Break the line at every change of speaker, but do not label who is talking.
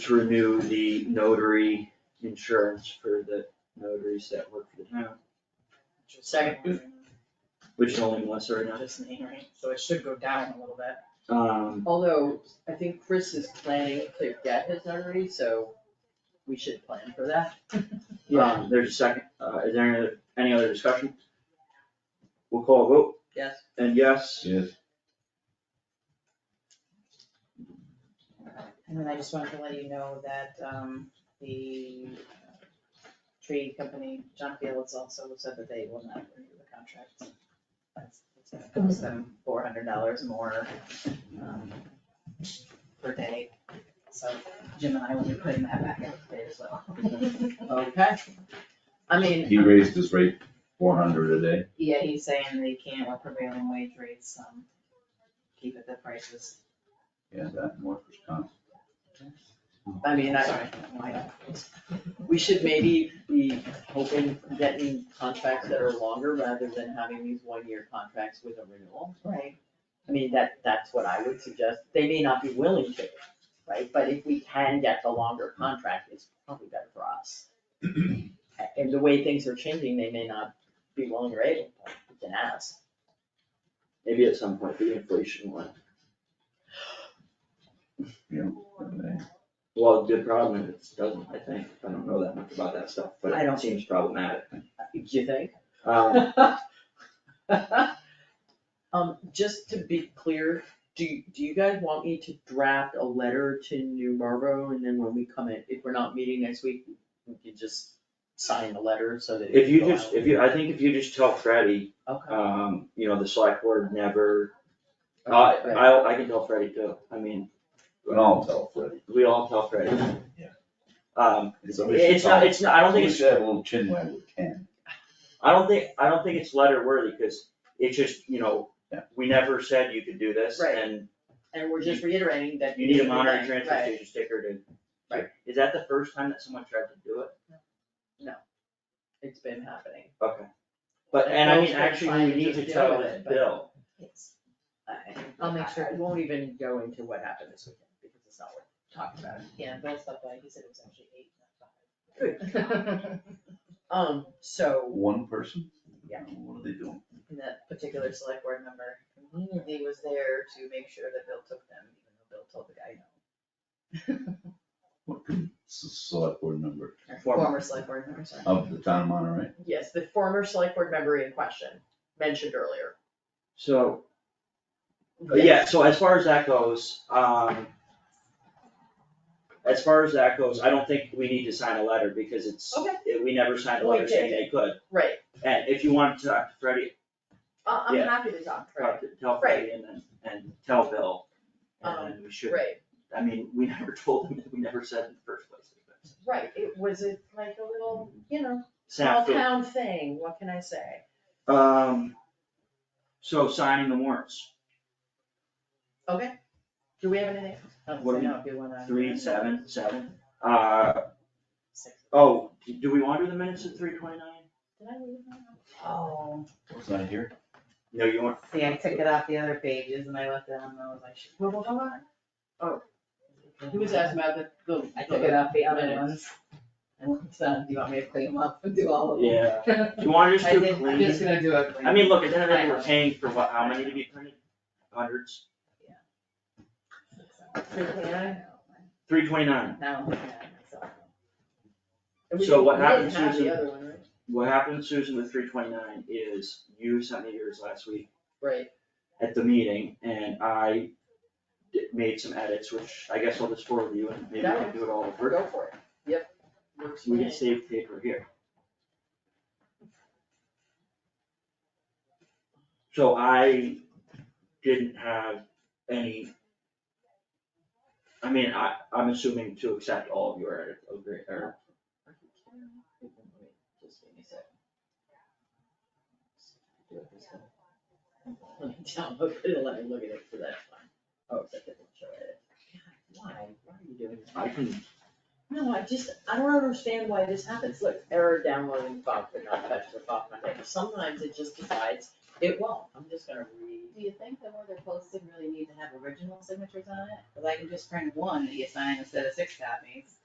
to renew the notary insurance for the notaries that work for the town,
Second.
which is only Melissa right now.
Just me, right? So it should go down a little bit.
Um,
Although, I think Chris is planning to get his already, so we should plan for that.
um, there's a second, uh, is there any, any other discussion? We'll call a vote,
Yes.
and yes,
Yes,
And then I just wanted to let you know that, um, the uh, tree company, John Fields also said that they will not renew the contract. That's, that's gonna cost them four hundred dollars more, um, per day. So Jim and I will be putting that back out today as well.
Okay. I mean,
he raised his rate four hundred a day.
Yeah, he's saying they can't with prevailing wage rates, um, keep it the prices.
Yeah, that and workers' comp.
I mean, I,
Sorry, why-
we should maybe be hoping, getting contracts that are longer rather than having these one-year contracts with a renewal.
Right,
I mean, that, that's what I would suggest. They may not be willing to, right? But if we can get the longer contract, it's probably better for us. And the way things are changing, they may not be willing or able, but we can ask.
maybe at some point the inflation one. Well, the problem is it doesn't, I think, I don't know that much about that stuff, but
I
it
don't-
seems problematic.
Do you think?
Um,
Um, just to be clear, do, do you guys want me to draft a letter to New Marlboro and then when we come in, if we're not meeting next week, we can just sign the letter so that it
if you
can go
just,
out?
if you, I think if you just tell Freddie
Okay,
Um, you know, the select board never, I, I, I can tell Freddie too, I mean,
But I'll tell Freddie.
we all tell Freddie.
Yeah.
Um,
Somebody should
it's not,
tell-
it's not, I don't think
We
it's,
should have a little chin wag with Ken.
I don't think, I don't think it's letter worthy, cause it's just, you know,
Yeah.
we never said you could do this,
Right.
and
and we're just reiterating that.
you need a monetary
Right,
transfer station sticker to.
Right.
Is that the first time that someone tried to do it?
It's been happening.
Okay. But, and I
Well,
mean,
it's
actually,
fine
we
to
need
just
to
deal
tell
with it, but-
Bill,
yes.
I-
I'll make sure.
I won't even go into what happened this weekend because it's not worth talking about.
Yeah, Bill stopped by, he said it was actually eight, not
Good.
five.
Um, so
One person?
Yeah.
What are they doing?
And that particular select board member immediately was there to make sure that Bill took them, even though Bill told the guy no.
What could, s- select board member
Or
Former.
Former select board member, sorry.
of the town of Monterey?
yes, the former select board member in question mentioned earlier.
so. But Oh, yeah, so as far as that goes, um. As far as that goes, I don't think we need to sign a letter because it's,
Okay.
it- we never signed a
Well,
letter
we
saying
did.
they could.
Right,
And if you want to talk to Freddie,
I, I'm
Yeah. Oh,
happy to talk, right,
talk to- tell Freddie and then, and tell Bill. And then we should,
right,
I mean, we never told them, we never said in the first place.
right, it was a, like a little, you know, small
Snap to-
town thing, what can I say?
um, so signing the warrants,
Do we have anything?
What do we-
if you wanna.
three, seven, seven, uh, oh, do we want to do the minutes at three twenty-nine?
Did I leave that? Oh,
Was I here?
No, you weren't,
see, I took it off the other pages and I left it on those, I should. Well, well, hold on. Oh.
He was asking about the, the.
I took it off the other
Minutes.
ones. And so, do you want me to clean them up and do all of them?
yeah. Do you want to just
I
do
did, I'm just
clean?
gonna do a.
I mean, look, at the end of the day,
I
we're
know.
paying for what, how many to be printed? Hundreds? Three twenty-nine.
Now, I'm mad at myself.
And we
So
didn't-
what
we didn't
happened,
have the
Susan?
other one, right?
What happened, Susan, with three twenty-nine is you sent me yours last week
Right,
at the meeting and I di- made some edits, which I guess I'll just forward you and maybe we can do it all
we're
over.
go for it, yep. Works for
We can
me.
save paper here. So I didn't have any. I mean, I, I'm assuming to accept all of your edit, agree, or,
Are you kidding me? Wait, Just give me a second. Do it this way. Let me download it, let me look at it for that time. Oh, that doesn't show it. God, Why, why are you doing this?
I can,
No, I just, I don't understand why this happens. Look, error downloading file could not touch the file container. Sometimes it just decides it won't. I'm just gonna read do you think the more they're posted really need to have original signatures on it? Cause I can just print one that you sign instead of six copies.